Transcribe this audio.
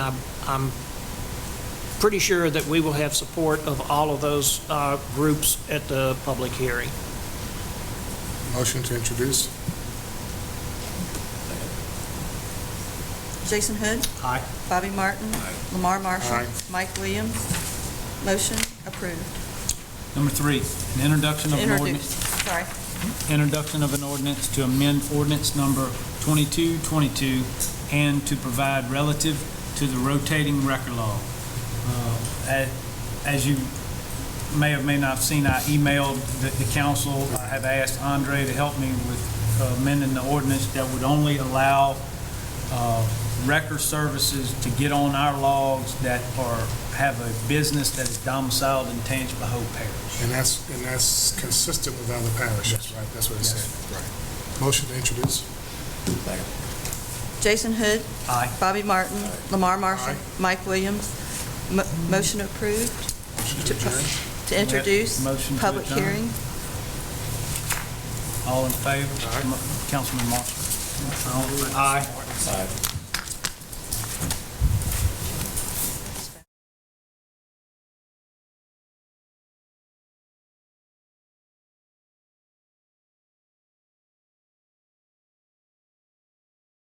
I'm pretty sure that we will have support of all of those uh, groups at the public hearing. Motion to introduce. Jason Hood, Aye. Bobby Martin, Lamar Marshall, Aye. Mike Williams. Motion approved. Number three, an introduction of an Introduced, ordinance, sorry. introduction of an ordinance to amend ordinance number 2222 and to provide relative to the rotating record law. Uh, a- As you may or may not have seen, I emailed the- the council, I have asked Andre to help me with amending the ordinance that would only allow uh, record services to get on our logs that are, have a business that is domiciled in Tangipahoa Parish. And that's, and that's consistent with other parishes, right? That's what it said. Right. Motion to introduce. Jason Hood, Aye. Bobby Martin, Lamar Marshall, Aye. Mike Williams. Mo- Motion approved Motion to adjourn. to introduce. Motion to Public adjourn. hearing. All in favor? Mo- Councilman Marshall? Aye.